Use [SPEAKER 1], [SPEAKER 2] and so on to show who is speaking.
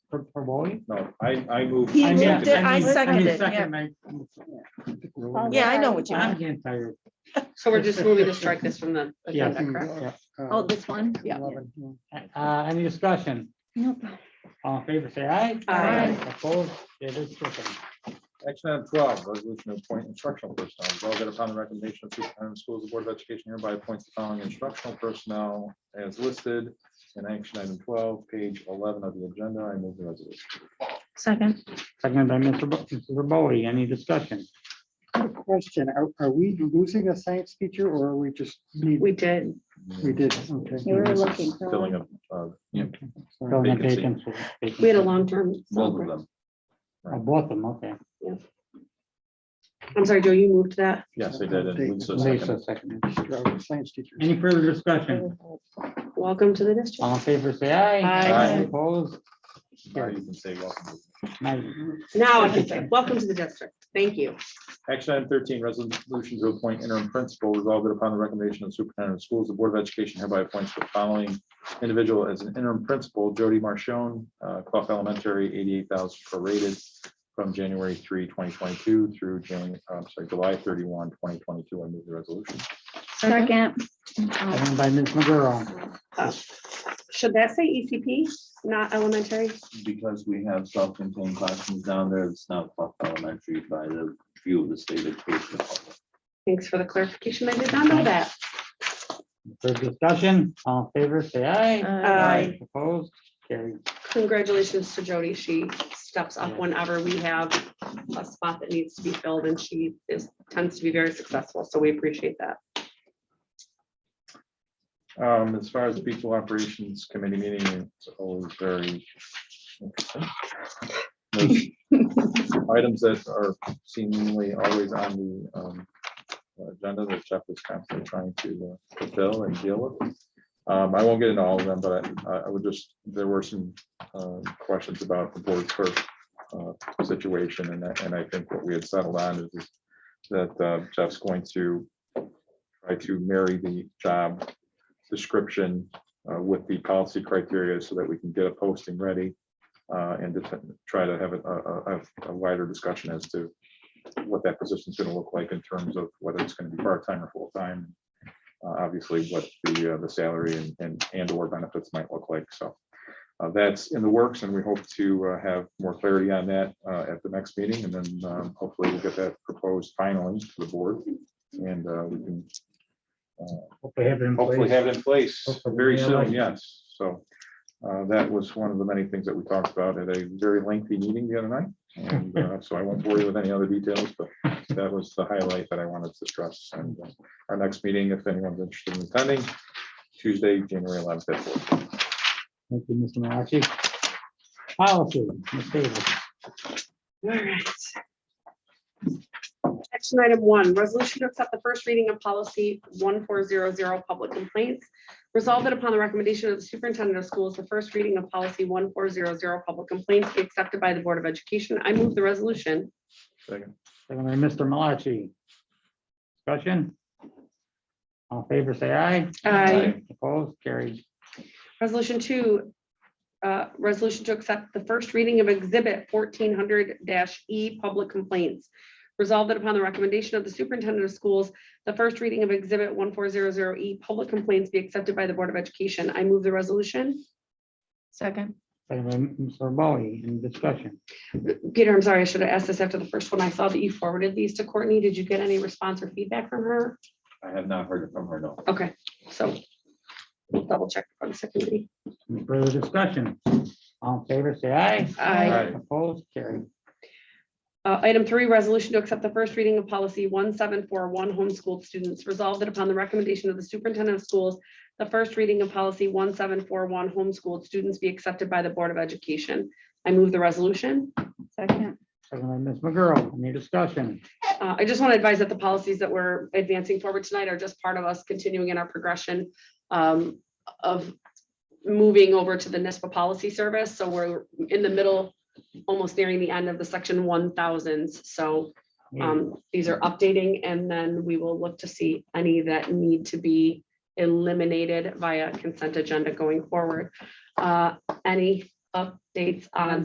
[SPEAKER 1] for, for mowing?
[SPEAKER 2] No, I, I move.
[SPEAKER 3] He
[SPEAKER 1] I
[SPEAKER 3] moved
[SPEAKER 1] mean-
[SPEAKER 3] it, I
[SPEAKER 1] mean- mean
[SPEAKER 3] seconded it,
[SPEAKER 1] second, I-
[SPEAKER 4] All
[SPEAKER 3] Yeah, I know what you
[SPEAKER 1] I'm
[SPEAKER 3] mean.
[SPEAKER 1] getting tired.
[SPEAKER 5] So we're just moving to strike this from the
[SPEAKER 1] Yeah.
[SPEAKER 5] agenda, correct?
[SPEAKER 1] yeah,
[SPEAKER 4] Oh,
[SPEAKER 1] uh,
[SPEAKER 4] this one? Yeah.
[SPEAKER 1] 11, yeah. Uh, any discussion?
[SPEAKER 4] Nope.
[SPEAKER 1] All in favor, say aye.
[SPEAKER 5] Aye.
[SPEAKER 1] Opposed, it is stricken.
[SPEAKER 2] Action item twelve, resolution to appoint instructional personnel. Resolved that upon the recommendation of superintendent of schools, the Board of Education hereby appoints the following instructional personnel as listed in action item twelve, page eleven of the agenda. I move the resolution.
[SPEAKER 4] Second.
[SPEAKER 1] Seconded by Mr. Bo- Mr. Bowie, any discussion?
[SPEAKER 6] Quick Question, are, are we losing a science teacher or are we just need,
[SPEAKER 5] Mm. We did.
[SPEAKER 6] we did, okay.
[SPEAKER 4] You were
[SPEAKER 2] This is
[SPEAKER 4] looking for
[SPEAKER 2] Filling
[SPEAKER 4] one.
[SPEAKER 2] up, uh,
[SPEAKER 6] Sorry.
[SPEAKER 1] Filling in
[SPEAKER 2] Vacancy.
[SPEAKER 1] vacancy- vacancy.
[SPEAKER 5] We had a long-term.
[SPEAKER 2] both of them.
[SPEAKER 1] Oh, Both of them, okay.
[SPEAKER 5] I'm sorry, Joe, you moved that.
[SPEAKER 2] Yes, they did. and Lisa
[SPEAKER 1] Lisa
[SPEAKER 2] seconded.
[SPEAKER 1] seconded.
[SPEAKER 6] Our Science teacher.
[SPEAKER 1] Any further discussion?
[SPEAKER 5] Welcome to the district.
[SPEAKER 1] All in favor, say aye.
[SPEAKER 5] Aye.
[SPEAKER 2] Aye.
[SPEAKER 1] Opposed?
[SPEAKER 2] Now you can say welcome.
[SPEAKER 1] Nay.
[SPEAKER 5] Now, I can say, welcome to the district. Thank you.
[SPEAKER 2] Action item thirteen, resolution to appoint interim principal resolved that upon the recommendation of superintendent of schools, the Board of Education hereby appoints the following individual as an interim principal, Jody Marshone, uh, Clough Elementary, eighty-eight thousand prorated from January 3, 2022, through Jan, I'm sorry, July 31, 2022. I move the resolution.
[SPEAKER 4] Second.
[SPEAKER 1] Seconded by Ms. McGurran.
[SPEAKER 5] Uh, Should that say ECP, not elementary?
[SPEAKER 7] because we have self-contained classrooms down there, it's not Clough elementary by the view of the state education.
[SPEAKER 5] Thanks for the clarification. I did not know that.
[SPEAKER 1] Further discussion, all in favor, say
[SPEAKER 4] Uh,
[SPEAKER 1] aye.
[SPEAKER 5] Aye.
[SPEAKER 1] Opposed, carried.
[SPEAKER 5] Congratulations to Jody. She steps up whenever we have a spot that needs to be filled and she is, tends to be very successful. So we appreciate that.
[SPEAKER 2] Um, as far as the Beach Hill Operations Committee meeting, it's always very. interesting. There's Items that are seemingly always on the um, agenda that Jeff is constantly trying to uh, fulfill and deal with. Um, I won't get into all of them, but I, I would just, there were some um, questions about the board clerk uh, situation and that, and I think what we had settled on is that uh, Jeff's going to try to marry the job description uh, with the policy criteria so that we can get a posting ready uh, and to try to have a- a, a- a wider discussion as to what that position is going to look like in terms of whether it's going to be part-time or full-time. uh, Obviously, what the, uh, the salary and- and, and or benefits might look like. So uh, that's in the works and we hope to uh, have more clarity on that uh, at the next meeting. And then um, hopefully we'll get that proposed finally to the board and uh, we can uh,
[SPEAKER 1] Hopefully have it in
[SPEAKER 2] hopefully
[SPEAKER 1] place.
[SPEAKER 2] have it in place
[SPEAKER 1] Hopefully
[SPEAKER 2] very
[SPEAKER 1] we
[SPEAKER 2] soon,
[SPEAKER 1] elect.
[SPEAKER 2] yes. So uh, that was one of the many things that we talked about at a very lengthy meeting the other night. And uh, so I won't bore you with any other details, but that was the highlight that I wanted to stress. And uh, our next meeting, if anyone's interested in attending, Tuesday, January eleventh. at four.
[SPEAKER 1] Thank you, Mr. Malachi. Policy, Ms. Davis.
[SPEAKER 5] All right. Action item one, resolution to accept the first reading of policy one four zero zero, public complaints. Resolved that upon the recommendation of the superintendent of schools, the first reading of policy one four zero zero, public complaints be accepted by the Board of Education. I move the resolution.
[SPEAKER 2] Second.
[SPEAKER 1] Second by Mr. Malachi. Discussion? All in favor, say aye.
[SPEAKER 5] Aye.
[SPEAKER 1] Opposed, carried.
[SPEAKER 5] Resolution two, uh, resolution to accept the first reading of exhibit fourteen hundred E, public complaints. Resolved that upon the recommendation of the superintendent of schools, the first reading of exhibit one four zero zero E, public complaints be accepted by the Board of Education. I move the resolution.
[SPEAKER 4] Second.
[SPEAKER 1] Second by Mr. Bowie, any discussion?
[SPEAKER 5] Peter, I'm sorry, I should have asked this after the first one. I saw that you forwarded these to Courtney. Did you get any response or feedback from her?
[SPEAKER 7] I have not heard from her, no.
[SPEAKER 5] Okay, so we'll double check on the second reading.
[SPEAKER 1] Any further discussion? All in favor, say aye.
[SPEAKER 5] Aye.
[SPEAKER 2] Aye.
[SPEAKER 1] Opposed, carried.
[SPEAKER 5] Uh, Item three, resolution to accept the first reading of policy one seven four one homeschooled students. Resolved that upon the recommendation of the superintendent of schools, the first reading of policy one seven four one homeschooled students be accepted by the Board of Education. I move the resolution.
[SPEAKER 4] Second.
[SPEAKER 1] Second by Ms. McGurl, any discussion?
[SPEAKER 5] Uh, I just want to advise that the policies that we're advancing forward tonight are just part of us continuing in our progression um, of moving over to the NISPA policy service. So we're in the middle, almost nearing the end of the section one thousands. So Um, these are updating and then we will look to see any that need to be eliminated via consent agenda going forward. Uh, any updates on